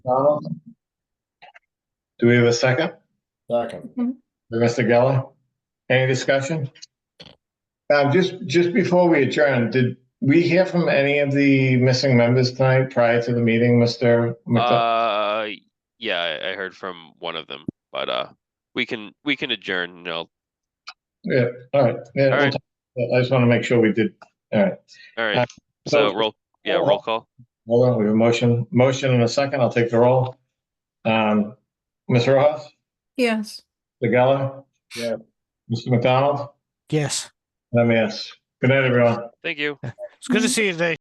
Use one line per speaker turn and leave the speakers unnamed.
Donald? Do we have a second?
Second.
For Mr. Geller? Any discussion? Um, just, just before we adjourn, did we hear from any of the missing members tonight prior to the meeting, Mr.? McDu-
Uh, yeah, I, I heard from one of them, but, uh, we can, we can adjourn, and I'll
Yeah, all right. Yeah, we'll
Alright.
talk- I just want to make sure we did, all right.
alright,
Uh, so-
so roll, yeah, roll call.
Hold on, we have a motion, motion in a second. I'll take the roll. Um, Ms. Rojas,
Yes.
Mr. Geller?
Yeah.
Mr. McDonald?
Yes.
Let me ask. Good night, everyone.
Thank you.
It's good to see you today.